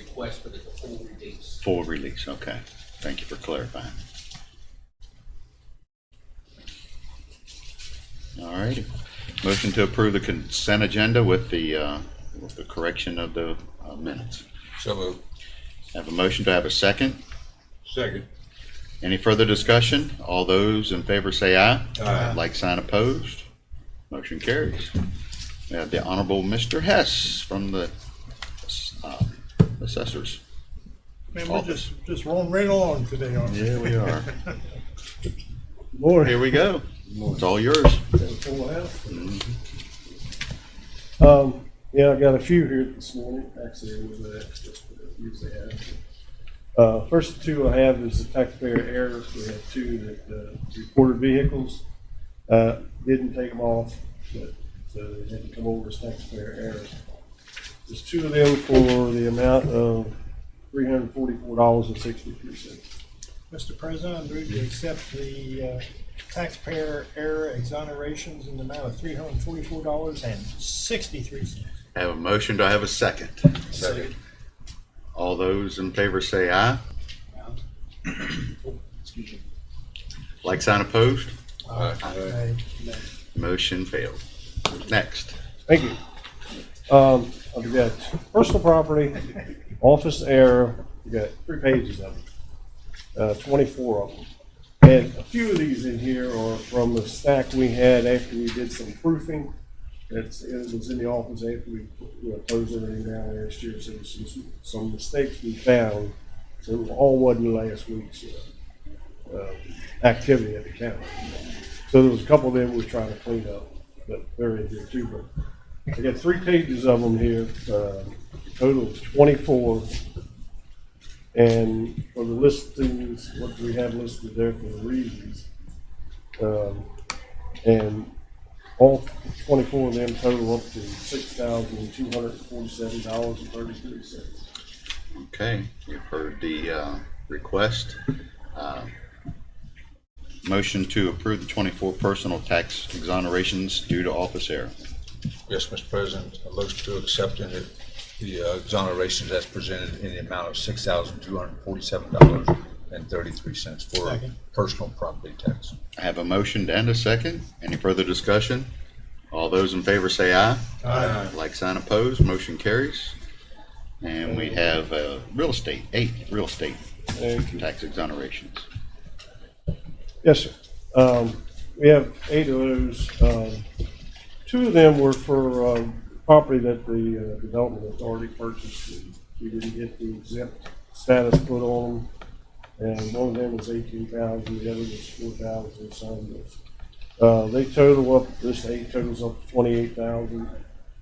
request, but it's a full release. Full release, okay. Thank you for clarifying. All righty. Motion to approve the consent agenda with the, uh, with the correction of the uh, minutes. So moved. Have a motion to have a second. Second. Any further discussion? All those in favor say aye. Aye. Like sign opposed. Motion carries. We have the Honorable Mr. Hess from the uh, assessors. Man, we're just, just rolling right along today, aren't we? Yeah, we are. Lord, Here we go. It's all yours. um, yeah, I got a few here this morning. Actually, it was an extra, but usually I have. Uh, first two I have is the taxpayer errors. We have two that, uh, reported vehicles, uh, didn't take them off, but, so they didn't come over as taxpayer errors. There's two of them for the amount of three hundred forty-four dollars and sixty-three cents. Mr. President, I move to accept the uh, taxpayer error exonerations in the amount of three hundred and forty-four dollars and sixty-three cents. I Have a motion, do I have a second? Second. All those in favor say aye. Oh, Excuse me. Like sign opposed, Aye. motion failed. Next. Thank you. Um, I've got personal property, office error, I've got three pages of them, uh, twenty-four of them. And a few of these in here are from the stack we had after we did some proofing. It's, it was in the office after we, you know, closed everything down last year, so there's some, some mistakes we found. So it all wasn't last week's, uh, uh, activity at the county. So there was a couple of them we were trying to clean up, but they're in here too, but I got three pages of them here, uh, total of twenty-four. And for the listings, what we have listed there for the reasons. Um, and all twenty-four of them total up to six thousand two hundred and forty-seven dollars and thirty-three cents. Okay, we have heard the uh, request. Uh, Motion to approve the 24 personal tax exonerations due to office error. Yes, Mr. President, I look to accepting the- the uh, exonerations as presented in the amount of six thousand two hundred forty-seven dollars and thirty-three cents for Second. personal property tax. I have a motion and a second. Any further discussion? All those in favor say aye. Aye. Like sign opposed, motion carries. And we have uh, real estate, eight real estate Thank you. tax exonerations. Yes, sir. Um, we have eight of those. Um, two of them were for, um, property that the uh, Development Authority purchased. We didn't get the exempt status put on them. And one of them was eighteen thousand, the other was four thousand, some. Uh, they total up, this eight totals up to twenty-eight thousand,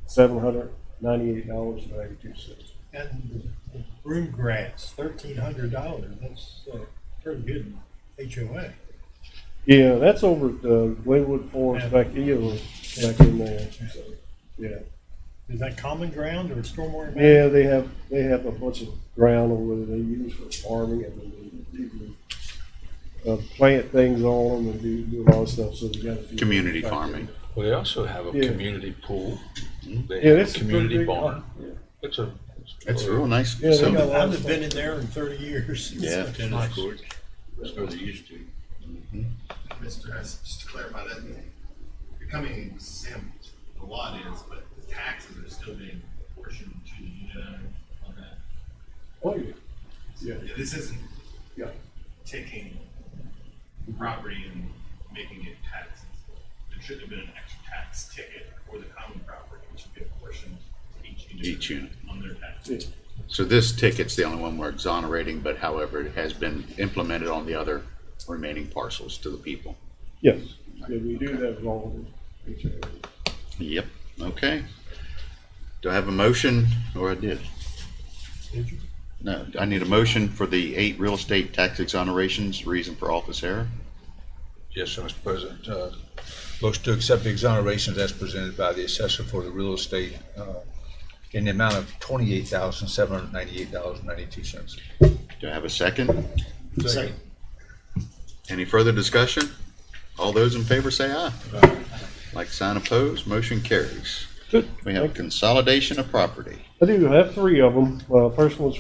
seven hundred ninety-eight dollars and ninety-two cents. And the room grants, thirteen hundred dollars, that's uh, pretty good HOA. Yeah, that's over at uh, Glenwood Forest back, here, back in there, so, yeah. Is that common ground or stormwater? management? Yeah, they have, they have a bunch of ground over there they use for farming and they even, uh, plant things on them and do, do a lot of stuff, so they got a few. Community farming. Well, they also have a Yeah. Hmm? community pool. They Yeah, have that's a a community pretty big barn. one. It's a. It's a real nice Yeah, they got facility. a lot of I've stuff. been in there in thirty years. Yeah. It's nice. That's where they used to. Mr. Hess, just to clarify that, becoming exempt, the lot is, but the taxes are still being apportioned to the unit owner on that. Oh, yeah. Yeah, Yeah, This isn't yeah. taking property and making it taxes. There should have been an extra tax ticket for the common property, which would be apportioned to each unit. Each unit. On their taxes. yeah. So this ticket's the only one we're exonerating, but however, it has been implemented on the other remaining parcels to the people. Yes, yeah, we do that with all of them. Yep, okay. Do I have a motion, or I did? Did you? No, I need a motion for the eight real estate tax exonerations, reason for office error. Yes, sir, Mr. President, uh, looks to accept the exonerations as presented by the assessor for the real estate, uh, in the amount of twenty-eight thousand seven hundred ninety-eight dollars and ninety-two cents. Do I have a second? Second. Any further discussion? All those in favor say aye. Like sign opposed, motion carries. Good. We have consolidation of property. I do have three of them. Uh, first one's